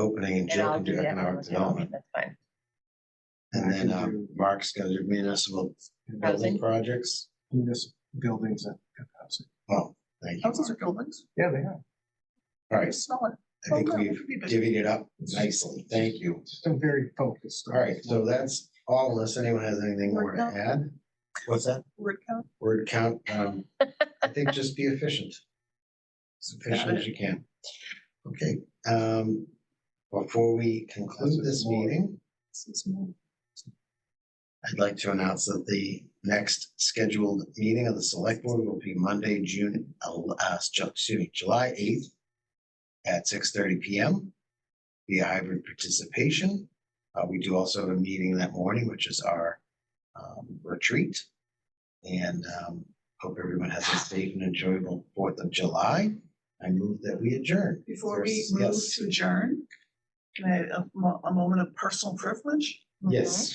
opening and And Jill I'll can do do that. economic one more time. development. That's fine. And then I uh, could do- Mark's gonna do municipal building Housing. projects. municipal buildings and housing. Oh, thank you. Houses are buildings. Yeah, they are. All I right, smell it. I think we've we. divvied it up nicely. Thank you. Just I'm very focused. All right, so that's all unless anyone has anything more to Word count? add. What's that? Word count. Word count, um, I think just be efficient. As efficient as you can. Okay, um, before we conclude this meeting, This is more. I'd like to announce that the next scheduled meeting of the select board will be Monday, June, el- uh, Ju- excuse me, July eighth at six thirty P M. Via hybrid participation. Uh, we do also have a meeting that morning, which is our, um, retreat. And, um, hope everyone has a safe and enjoyable Fourth of July. I move that we adjourn. Before we Yes. move to adjourn, can I, have a mo- a moment of personal privilege? Yes,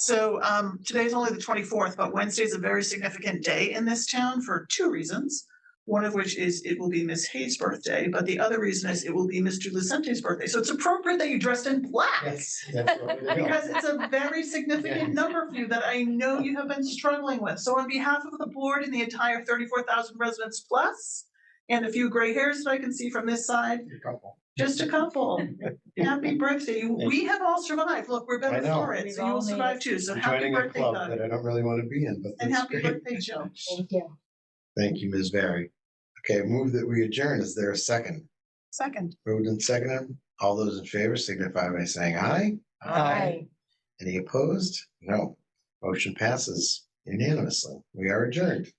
So um, today's only the twenty-fourth, but Wednesday's a very significant day in this town for two reasons. One of which is it will be Miss Hayes' birthday, but the other reason is it will be Mr. Lucente's birthday. So it's appropriate that you dressed in black. yes. that's what we're doing. Because it's a very significant number for you that I know you have been struggling with. So on behalf of the board and the entire thirty-four thousand residents plus, and a few gray hairs that I can see from this side, just a couple. Happy birthday. You- We have all survived. Look, we're I better know. for it. We've So you'll all made survive it. too. So I'm happy joining a birthday, club Doug. that I don't really want to be in, but And that's happy great. birthday, Jill. Thank you. Thank you, Ms. Barry. Okay, move that we adjourn. Is there a second? Second. Moved and seconded. All those in favor signify by saying aye. Aye. Any opposed? No. Motion passes unanimously. We are adjourned.